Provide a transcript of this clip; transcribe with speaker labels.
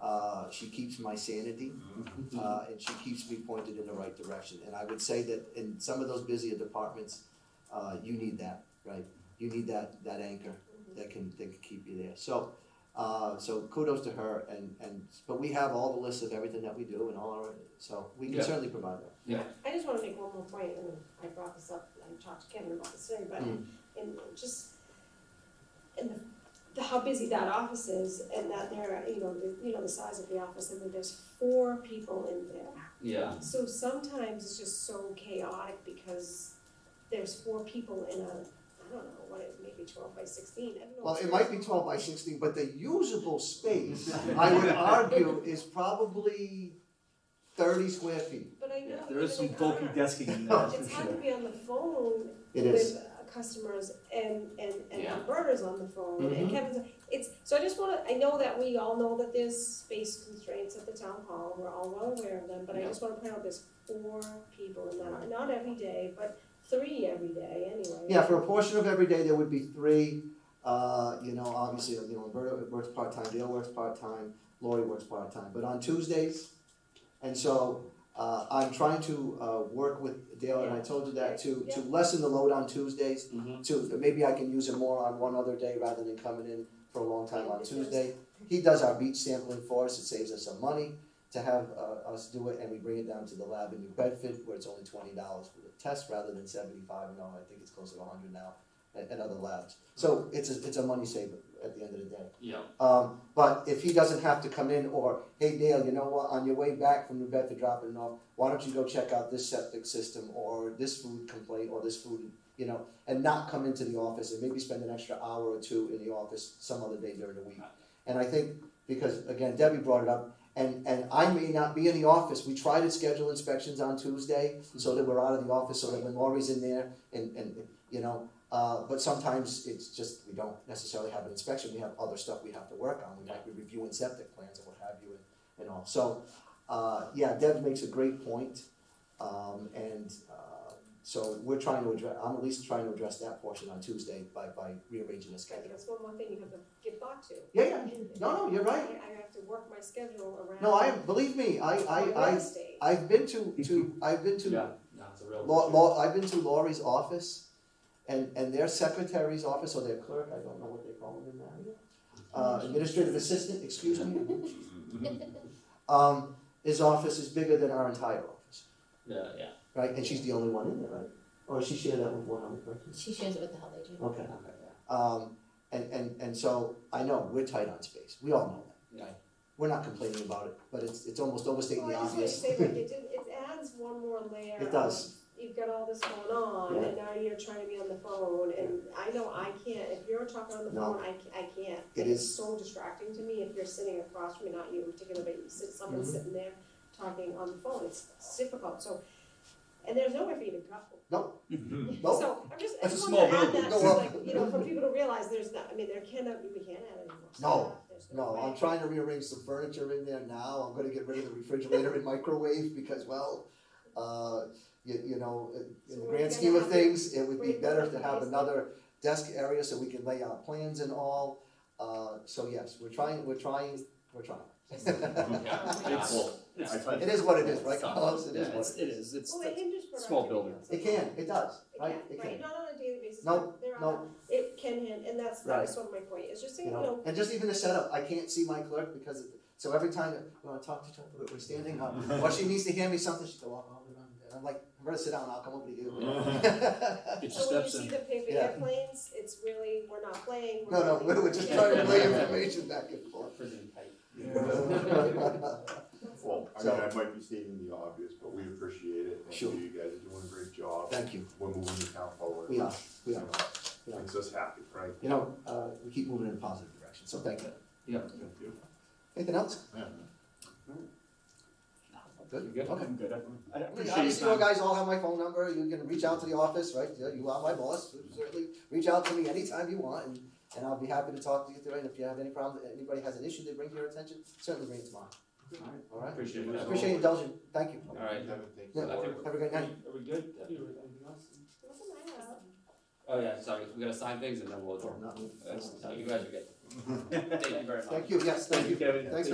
Speaker 1: Uh, she keeps my sanity, uh, and she keeps me pointed in the right direction. And I would say that in some of those busier departments, uh, you need that, right? You need that, that anchor that can, that can keep you there. So, uh, so kudos to her and, and, but we have all the lists of everything that we do and all our, so we can
Speaker 2: Yeah.
Speaker 1: certainly provide that.
Speaker 3: I just wanna make one more point, and I brought this up, I talked to Kevin about this today, but
Speaker 1: Mm.
Speaker 3: and just and the, the how busy that office is and that there, you know, the, you know, the size of the office, and then there's four people in there.
Speaker 2: Yeah,
Speaker 3: So sometimes it's just so chaotic because there's four people in a, I don't know, what, it maybe twelve by sixteen, I don't know.
Speaker 1: Well, it might be twelve by sixteen, but the usable space, I would argue, is probably thirty square feet.
Speaker 3: But I know.
Speaker 2: Yeah,
Speaker 4: There is some
Speaker 3: even in
Speaker 4: bulky
Speaker 3: our-
Speaker 4: desking in there, that's for
Speaker 3: It's hard to
Speaker 4: sure.
Speaker 3: be on the phone
Speaker 1: It is.
Speaker 3: with uh, customers and and and
Speaker 2: Yeah.
Speaker 3: Roberta's on the phone
Speaker 1: Mhm.
Speaker 3: and Kevin's. It's so I just want to. I know that we all know that there's space constraints at the town hall. We're all well aware of them, but I
Speaker 2: Yeah.
Speaker 3: just want to point out there's four people in that. Not every day, but three every day anyway.
Speaker 1: Yeah, for a portion of every day, there would be three, uh, you know, obviously, you know, Roberta works part-time, Dale works part-time, Lori works part-time, but on Tuesdays, and so, uh, I'm trying to, uh, work with Dale, and I told you that, to, to lessen the load on Tuesdays,
Speaker 2: Mhm.
Speaker 1: to, maybe I can use it more on one other day rather than coming in for a long time on Tuesday. He does our beach sampling for us, it saves us some money to have, uh, us do it, and we bring it down to the lab in New Bedford, where it's only twenty dollars for the test rather than seventy-five, no, I think it's closer to hundred now at, at other labs. So it's a, it's a money saver at the end of the day.
Speaker 2: yeah,
Speaker 1: Um, but if he doesn't have to come in or, hey Dale, you know what, on your way back from New Bedford dropping it off, why don't you go check out this septic system or this food complaint or this food, you know, and not come into the office and maybe spend an extra hour or two in the office some other day during the week. And I think, because again, Debbie brought it up, and, and I may not be in the office, we try to schedule inspections on Tuesday so that we're out of the office, so that when Lori's in there and, and, you know, uh, but sometimes it's just, we don't necessarily have an inspection, we have other stuff we have to work on, we might be reviewing septic plans and what have you and, and all, so, uh, yeah, Deb makes a great point, um, and, uh, so we're trying to address, I'm at least trying to address that portion on Tuesday by, by rearranging the
Speaker 3: I think
Speaker 1: schedule.
Speaker 3: that's one more thing you have to give thought to.
Speaker 1: Yeah, yeah, no, no, you're
Speaker 3: I,
Speaker 1: right,
Speaker 3: I have to work my schedule around.
Speaker 1: no, I, believe me, I,
Speaker 3: my
Speaker 1: I, I,
Speaker 3: real estate.
Speaker 1: I've been to, to, I've been to
Speaker 2: yeah, no, it's a real.
Speaker 1: Law,
Speaker 2: issue.
Speaker 1: law, I've been to Laurie's office and, and their secretary's office or their clerk, I don't know what they call them in that. Uh, administrative assistant, excuse me, um, his office is bigger than our entire office,
Speaker 2: Yeah, yeah,
Speaker 1: right? And she's the only one in there, right? Or she shared that with one other person?
Speaker 5: She shares it with the health agent.
Speaker 1: Okay.
Speaker 2: okay, yeah.
Speaker 1: Um, and, and, and so I know we're tight on space, we all know that, right? We're not complaining about it, but it's, it's almost overstating the
Speaker 3: Well, I just wanna
Speaker 1: obvious.
Speaker 3: say, like, it did, it adds one more layer.
Speaker 1: It does.
Speaker 3: of You've got all this going on, and now you're trying to be on the phone, and I know I can't, if you're talking on the
Speaker 1: No.
Speaker 3: phone, I, ca- I can't.
Speaker 1: It
Speaker 3: It's
Speaker 1: is-
Speaker 3: so distracting to me if you're sitting across from me, not you in particular, but you sit, someone's
Speaker 1: Mhm.
Speaker 3: sitting there talking on the phone, it's it's difficult, so, and there's nowhere for you to go.
Speaker 4: Mm-hmm.
Speaker 1: Nope.
Speaker 3: So, I'm just, I
Speaker 4: That's a
Speaker 3: just
Speaker 4: small
Speaker 3: wanted to add
Speaker 4: building.
Speaker 3: that,
Speaker 1: No,
Speaker 3: just
Speaker 1: well-
Speaker 3: like, you know, for people to realize there's not, I mean, there cannot, we can't add any more
Speaker 1: No,
Speaker 3: stuff, there's
Speaker 1: No,
Speaker 3: way.
Speaker 1: I'm trying to rearrange some furniture in there now. I'm gonna get rid of the refrigerator and microwave because, well, uh, you, you know, in-
Speaker 3: So
Speaker 1: in the
Speaker 3: we're
Speaker 1: grand
Speaker 3: gonna
Speaker 1: scheme of
Speaker 3: have
Speaker 1: things, it would be
Speaker 3: break
Speaker 1: better
Speaker 3: up
Speaker 1: to have
Speaker 3: space.
Speaker 1: another desk area so we can lay out plans and all. Uh, so yes, we're trying, we're trying, we're trying.
Speaker 2: Yeah, it's- it's-
Speaker 4: Yeah, I- I-
Speaker 1: It is what it is, right,
Speaker 2: it's tough.
Speaker 1: Carlos? It
Speaker 2: Yeah,
Speaker 1: is what
Speaker 2: it's-
Speaker 1: it
Speaker 4: It is, it's,
Speaker 3: Well, it hinders productivity.
Speaker 4: small building.
Speaker 3: also.
Speaker 1: It can, it does,
Speaker 3: It
Speaker 1: right?
Speaker 3: can, right, not on a daily basis,
Speaker 1: No,
Speaker 3: but there
Speaker 1: no.
Speaker 3: are, it can, hand- and that's,
Speaker 1: Right.
Speaker 3: that's one of my point, it's just,
Speaker 1: you
Speaker 3: you
Speaker 1: know,
Speaker 3: know,
Speaker 1: and just even the setup, I can't see my clerk because, of- so every time that when I talk to her, we're- we're standing up, or she needs to hand me something, she go, oh, oh, and I'm like, I'm gonna sit down, I'll come over to you.
Speaker 4: Get your
Speaker 3: so when you
Speaker 4: steps
Speaker 3: see
Speaker 4: in.
Speaker 3: the paper
Speaker 1: Yeah.
Speaker 3: airplanes, it's really, we're not playing, we're.
Speaker 1: No, no,
Speaker 3: really-
Speaker 1: we're we're just
Speaker 3: Yeah.
Speaker 1: trying to relay information back and forth.
Speaker 2: Prison type.
Speaker 6: Well, I mean, I might be stating the obvious, but we appreciate it, and
Speaker 1: Sure.
Speaker 6: you guys are doing a great job.
Speaker 1: Thank you,
Speaker 6: We're moving the town forward.
Speaker 1: we are, we
Speaker 6: You
Speaker 1: are,
Speaker 6: know, Makes us happy, right?
Speaker 1: you know, uh, we keep moving in a positive direction, so thank you.
Speaker 2: Yeah.
Speaker 6: Thank you.
Speaker 1: Anything else?
Speaker 2: You
Speaker 1: Good?
Speaker 2: good?
Speaker 1: Okay.
Speaker 4: I'm good, I- I
Speaker 1: I mean,
Speaker 4: appreciate
Speaker 1: Obviously,
Speaker 4: your
Speaker 1: you
Speaker 4: time.
Speaker 1: guys all have my phone number, you can reach out to the office, right, You- you are my boss, certainly, reach out to me anytime you want, and, and I'll be happy to talk to you through, it. and if you have any problem, anybody has an issue they bring to your attention, certainly bring it to mine,
Speaker 2: Alright,
Speaker 1: all right?
Speaker 2: Appreciate
Speaker 1: I
Speaker 2: it.
Speaker 1: Appreciate indulging, thank you.
Speaker 2: Alright.
Speaker 6: Kevin, thank
Speaker 1: Yeah.
Speaker 6: you.
Speaker 2: I think
Speaker 1: Have a great night.
Speaker 2: Are we good? Debbie, or anything else?
Speaker 3: What's the matter?
Speaker 2: Oh, yeah, sorry, we gotta sign things and then we'll adjourn.
Speaker 1: Not me.
Speaker 2: That's, no, you guys are good. Thank you very much.
Speaker 1: Thank you, yes, thank you.
Speaker 4: Kevin.
Speaker 1: Thanks